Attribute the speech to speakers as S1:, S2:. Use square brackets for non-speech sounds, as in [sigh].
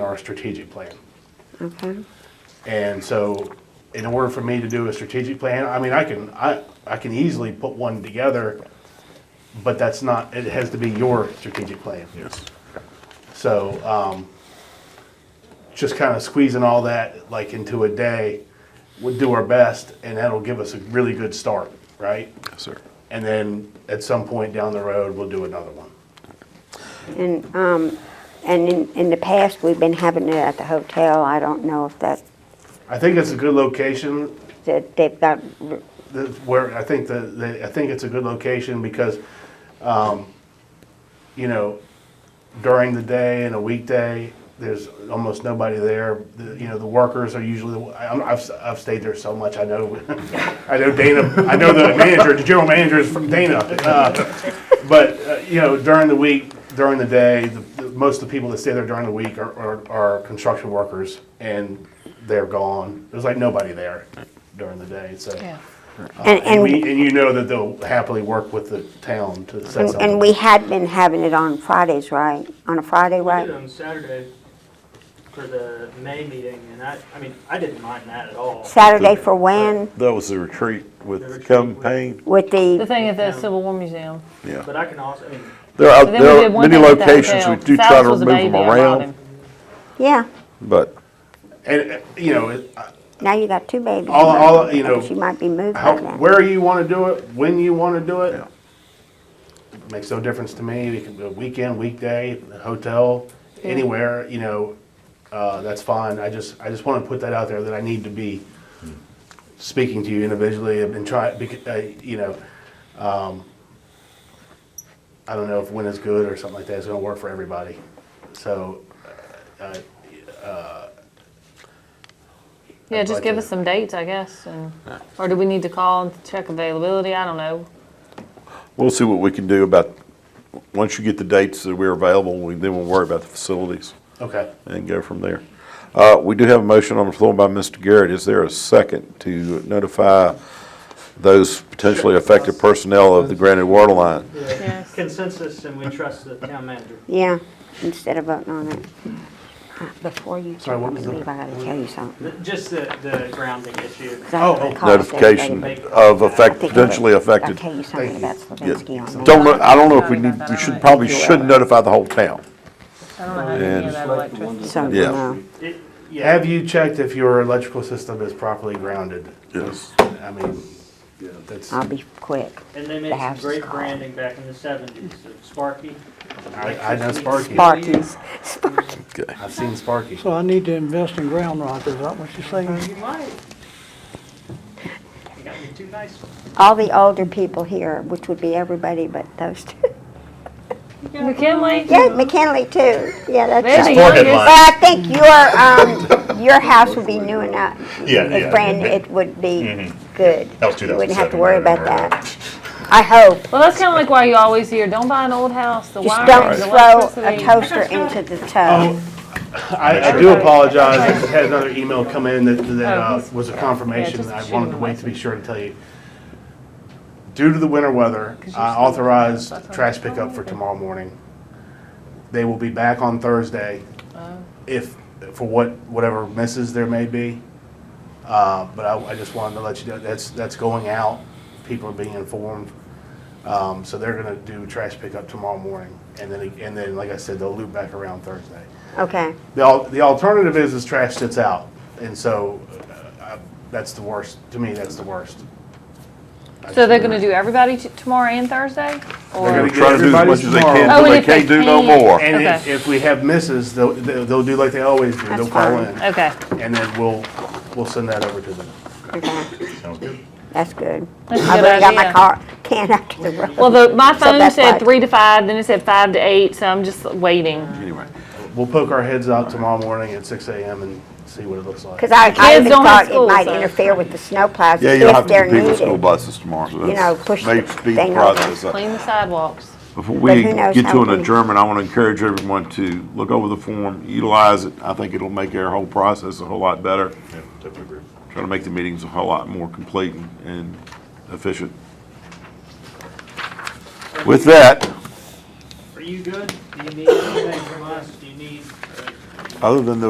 S1: our strategic plan.
S2: Okay.
S1: And so, in order for me to do a strategic plan, I mean, I can, I, I can easily put one together, but that's not, it has to be your strategic plan.
S3: Yes.
S1: So, um, just kind of squeezing all that like into a day, we'll do our best and that'll give us a really good start, right?
S3: Yes, sir.
S1: And then at some point down the road, we'll do another one.
S2: And, um, and in, in the past, we've been having it at the hotel. I don't know if that,
S1: I think it's a good location
S2: that they've got,
S1: that's where I think the, the I think it's a good location because, um, you know, during the day and a weekday, there's almost nobody there. The, you know, the workers are usually. the- I- I'm, I've, I've stayed there so much. I know, [laughs] I know Dana. I know the manager. The general manager is from Dana. Uh, but uh, you know, during the week, during the day, the, the, most of the people that stay there during the week are, are, are construction workers, and they're gone. There's like nobody there during the day. So.
S4: Yeah.
S2: and,
S1: And we,
S2: and,
S1: and you know that they'll happily work with the town to set
S2: and-
S1: something.
S2: and we had been having it on Fridays, right? On a Friday,
S5: I did it
S2: right?
S5: on Saturday for the May meeting, and I, I mean, I didn't mind that at all.
S2: Saturday for when?
S3: That was the retreat with
S5: The
S3: the
S5: retreat
S3: campaign.
S2: With
S4: The
S2: the,
S4: thing at the Civil War Museum.
S3: Yeah.
S5: But I can also, I mean,
S3: There are,
S4: But then we
S3: there are
S4: did one
S3: many
S4: thing at the
S3: locations we
S4: hotel.
S3: do try
S4: Silas
S3: to
S4: was a
S3: remove them
S4: baby, I brought
S3: around,
S4: him.
S2: yeah,
S3: but
S1: And, uh, you know, it-
S2: now you got two babies.
S1: all, all, you know,
S2: She might be moved
S1: how,
S2: by then.
S1: where you wanna do it, when you wanna do
S3: Yeah.
S1: it, makes no difference to me. We can do a weekend, weekday, hotel, anywhere, you know, uh, that's fine. I just, I just wanna put that out there that I need to be speaking to you individually and try, bec- uh, you know, um, I don't know if when is good or something like that. It's gonna work for everybody. So,
S4: Yeah, just give
S1: budget.
S4: us some dates, I guess, and, or do we need to call and check availability? I don't know.
S3: we'll see what we can do about, once you get the dates that we're available, we- then we'll worry about the facilities
S1: okay.
S3: and go from there. Uh, we do have a motion on the floor by Mr. Garrett. Is there a second to notify those potentially affected personnel of the Granite Water Line?
S4: Yes.
S5: consensus, and we trust the town manager.
S2: Yeah, instead of voting on it. Before you
S1: Sorry,
S2: talk
S1: what
S2: to
S1: was
S2: me, I
S1: that?
S2: gotta tell you something.
S5: Th- Just the, the grounding issue.
S2: 'Cause I
S1: Oh,
S2: haven't
S1: oh.
S2: called
S3: Notification
S2: everybody,
S3: of
S2: but I
S3: affect,
S2: think I-
S3: potentially
S2: I'll
S3: affected.
S2: tell you something about Slavinsky on that.
S3: Don't, know- I don't know if we need, we should, probably should notify the whole town.
S4: I don't know how any of that electricity.
S2: So,
S3: Yeah.
S2: no.
S5: It- Yeah,
S1: Have you checked if your electrical system is properly grounded?
S3: Yes.
S1: I mean, that's,
S2: I'll be quick.
S5: and they made
S2: The
S5: some
S2: house is
S5: great
S2: called.
S5: branding back in the seventies, of Sparky.
S1: I, I know Sparky.
S2: Sparky's.
S3: Okay.
S1: I've seen Sparky.
S6: So I need to invest in ground rock, is that what you're saying?
S5: You might. You got me two nice ones.
S2: [laughs] All the older people here, which would be everybody but those two. [laughs]
S4: McKinley?
S2: Yeah, McKinley too. Yeah, that's
S4: They're the
S2: right.
S4: youngest.
S2: But I think your, um, your house would be new enough.
S7: Yeah,
S2: It's
S7: yeah.
S2: brand, it would be good.
S7: That was
S2: You wouldn't have
S7: 2007,
S2: to worry
S7: I
S2: about
S7: remember.
S2: that. I hope.
S4: Well, that's kind of like why you always hear, don't buy an old house, the
S2: Just
S4: wires,
S2: don't
S4: the
S2: throw a
S4: electricity.
S2: toaster into the tub.
S1: I, I do apologize. I had another email come in that, that
S4: Oh,
S1: uh,
S4: he's-
S1: was a confirmation.
S4: just
S1: I
S4: shoot
S1: wanted
S4: him
S1: to
S4: a
S1: wait to be sure to tell you. Due to the winter weather, I authorized trash pickup
S4: Oh,
S1: for tomorrow morning. They will be back on Thursday
S4: Oh.
S1: if, for what, whatever misses there may be. Uh, But I, I just wanted to let you know, that's, that's going out. People are being informed. Um, So they're gonna do trash pickup tomorrow morning. And then, and then, like I said, they'll loop back around Thursday.
S2: Okay.
S1: The, al- the alternative is is trash sits out, and so uh, I, that's the worst. To me, that's the worst.
S4: So they're gonna do everybody t- tomorrow and Thursday?
S1: gonna
S4: Or,
S1: get
S3: Trying to do as much as they can,
S4: Oh, and
S3: but they
S4: if they
S3: can't do no
S4: can't-
S3: more.
S1: And if,
S4: Okay.
S1: if we have misses, they'll, they'll they'll do like they always do. they'll
S2: That's
S1: call
S2: fine.
S1: in,
S4: okay,
S1: and then we'll we'll send that over to them.
S2: Okay.
S7: Sounds good.
S2: That's good.
S4: That's a
S2: I've
S4: good
S2: already got my
S4: idea.
S2: car can out to the road.
S4: well, the, my phone
S2: that's
S4: said
S2: like-
S4: three to five, then it said five to eight, so I'm just waiting.
S3: Anyway,
S1: We'll poke our heads out tomorrow morning at 6 a.m. and see what it looks like.
S2: Because I, I
S4: kids
S2: even
S4: don't have
S2: thought it
S4: school,
S2: might
S4: so-
S2: interfere with the snowplows
S3: yeah, you'll have
S2: if
S3: to
S2: they're
S3: compete with school
S2: needed.
S3: buses tomorrow, so
S2: know, push
S3: that's, may
S2: the
S3: speed the
S2: thing over.
S3: process up.
S4: Clean the sidewalks.
S3: Before
S2: But
S3: we
S2: who knows
S3: get
S2: how
S3: to an
S2: many-
S3: adjournment, I want to encourage everyone to look over the form, utilize it. I think it'll make our whole process a whole lot better.
S7: Yeah, definitely agree.
S3: Try to make the meetings a whole lot more complete and- and efficient. With that,
S5: Are you good? Do you need anything from us? Do you need, uh,
S3: Other than the